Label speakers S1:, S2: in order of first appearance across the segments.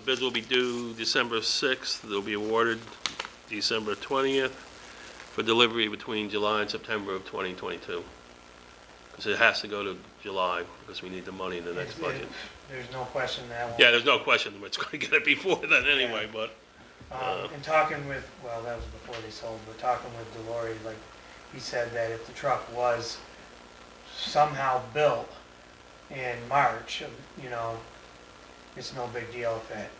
S1: bids will be due December 6th. They'll be awarded December 20th for delivery between July and September of 2022. Because it has to go to July, because we need the money in the next budget.
S2: There's no question that one.
S1: Yeah, there's no question, it's going to get it before then anyway, but, uh,
S2: Um, and talking with, well, that was before they sold, but talking with Delory, like, he said that if the truck was somehow built in March, you know, it's no big deal if it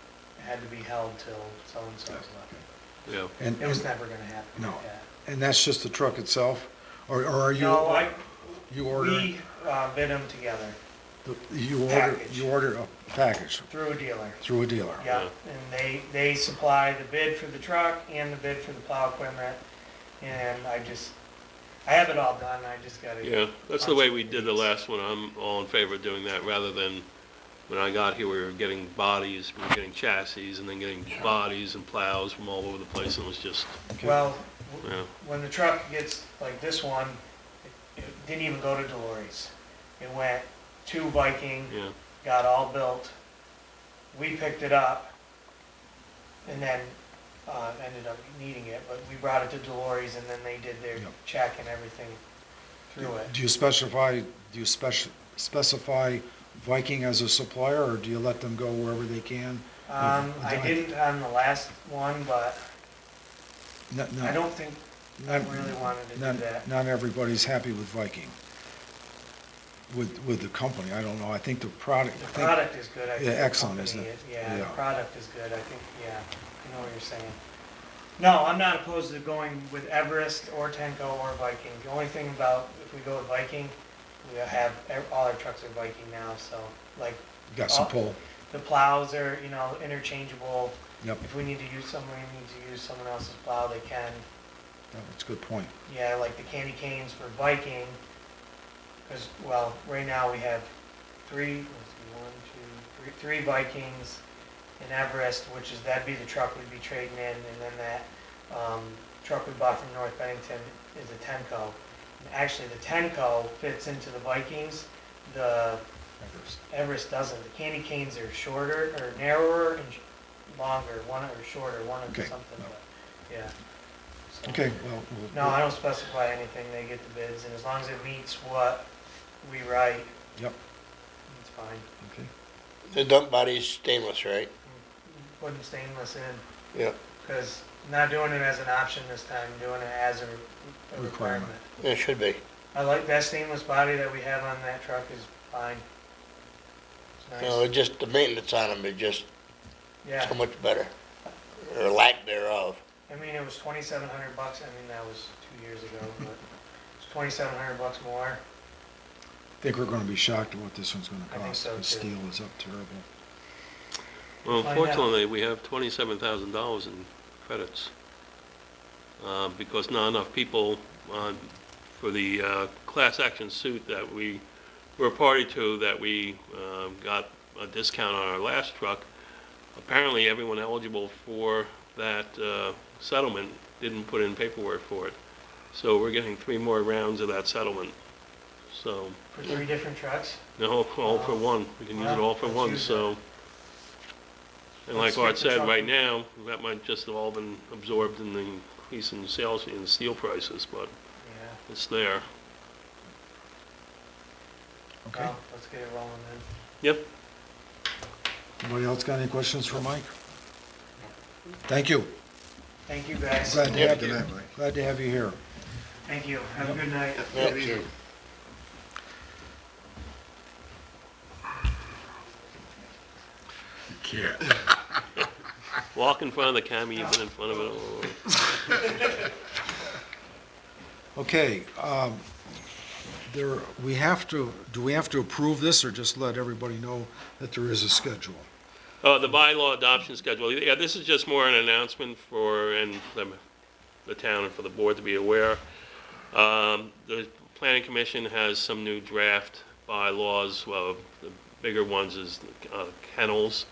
S2: had to be held till so-and-so's looking.
S1: yeah.
S3: And,
S2: It was never gonna happen like
S3: No.
S2: that.
S3: and that's just the truck itself? Or, or are you,
S2: No, I,
S3: you order,
S2: we, uh, bid them together
S3: you order,
S2: Package.
S3: you order a package
S2: through a dealer.
S3: through a dealer?
S2: Yeah, and they, they supply the bid for the truck and the bid for the plow equipment, and I just, I have it all done, I just gotta.
S1: Yeah, that's the way we did the last one. I'm all in favor of doing that, rather than, when I got here, we were getting bodies, we were getting chassis, and then getting bodies and plows from all over the place, and it was just,
S3: Okay.
S2: Well,
S1: you
S2: w-
S1: know,
S2: when the truck gets like this one, it- it didn't even go to Delories. It went to Viking,
S1: yeah.
S2: got all built, we picked it up, and then, uh, ended up needing it, but we brought it to Delories, and then they did their
S3: Yep.
S2: check and everything through it.
S3: Do you specify, do you spec- specify Viking as a supplier, or do you let them go wherever they can?
S2: Um, I
S3: Done.
S2: didn't on the last one, but
S3: Not-
S2: I
S3: not-
S2: don't think, I
S3: not-
S2: really wanted to do
S3: not-
S2: that.
S3: Not everybody's happy with Viking, with, with the company, I don't know, I think the product.
S2: the
S3: I think-
S2: product is good. I think
S3: Yeah,
S2: the
S3: excellent,
S2: company
S3: isn't it?
S2: is- Yeah, the
S3: Yeah.
S2: product is good, I think, yeah, I know what you're saying. No, I'm not opposed to going with Everest or Tenco or Viking. The only thing about, if we go with Viking, we have, ev- all our trucks are Viking now, so, like,
S3: Got some
S2: Oh.
S3: pull,
S2: the plows are, you know, interchangeable.
S3: yep,
S2: If we need to use someone, we need to use someone else's plow, they can.
S3: that's a good point.
S2: Yeah, like the candy canes for Viking, because, well, right now we have three, let's see, one, two, three, three Vikings in Everest, which is, that'd be the truck we'd be trading in, and then that, um, truck we bought from North Bennington is a Tenco. And actually, the Tenco fits into the Vikings, the Everest doesn't. The candy canes are shorter, or narrower and sh- longer, one or shorter, one or
S3: Okay.
S2: something, but, yeah. So-
S3: Okay, well, we'll-
S2: no, I don't specify anything, they get the bids, and as long as it meets what we write,
S3: Yep,
S2: it's fine.
S3: okay.
S4: The dump body's stainless, right?
S2: Putting stainless in,
S4: Yeah.
S2: because not doing it as an option this time, doing it as a a
S3: Requirement.
S2: requirement.
S4: It should be.
S2: I like that stainless body that we have on that truck is fine. It's
S4: You know,
S2: nice,
S4: it's just the maintenance on them is just
S2: yeah,
S4: so much better, or lack thereof.
S2: I mean, it was twenty-seven hundred bucks, I mean, that was two years ago, but it's twenty-seven hundred bucks more.
S3: Think we're gonna be shocked at what this one's gonna
S2: I think
S3: cost,
S2: so,
S3: because
S2: too.
S3: steel is up terrible.
S1: Well,
S2: Find out.
S1: unfortunately, we have twenty-seven thousand dollars in credits, uh, because not enough people on, for the uh, class action suit that we were party to, that we um, got a discount on our last truck. Apparently, everyone eligible for that uh, settlement didn't put in paperwork for it. So we're getting three more rounds of that settlement. So,
S2: For three different trucks,
S1: no, all for one, we can use it all for
S2: Wow,
S1: one,
S2: that's huge.
S1: so. And
S2: Let's
S1: like
S2: stick
S1: Art
S2: to
S1: said, right
S2: chocolate.
S1: now, that might just have all been absorbed in the increase in sales and steel prices, but
S2: yeah,
S1: it's there.
S3: Okay,
S2: well, let's get it rolling then.
S1: Yep,
S3: anybody else got any questions for Mike? Thank you.
S2: Thank you, guys.
S3: Glad to
S4: Yeah,
S3: have
S4: thank
S3: you,
S4: you.
S3: glad to have you here.
S2: Thank you. Have a good night.
S4: Yeah, sure.
S1: walk in front of the camera, you've been in front of it all over.
S3: Okay, um, there, we have to, do we have to approve this, or just let everybody know that there is a schedule?
S1: Oh, the bylaw adoption schedule, yeah, this is just more an announcement for, and the- the town and for the board to be aware. Um, The planning commission has some new draft bylaws, well, the bigger ones is uh, kennels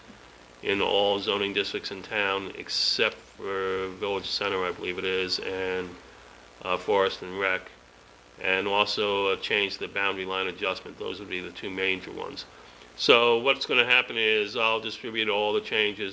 S1: in all zoning districts in town, except for Village Center, I believe it is, and uh, Forest and Rec, and also a change to the boundary line adjustment, those would be the two major ones. So what's going to happen is I'll distribute all the changes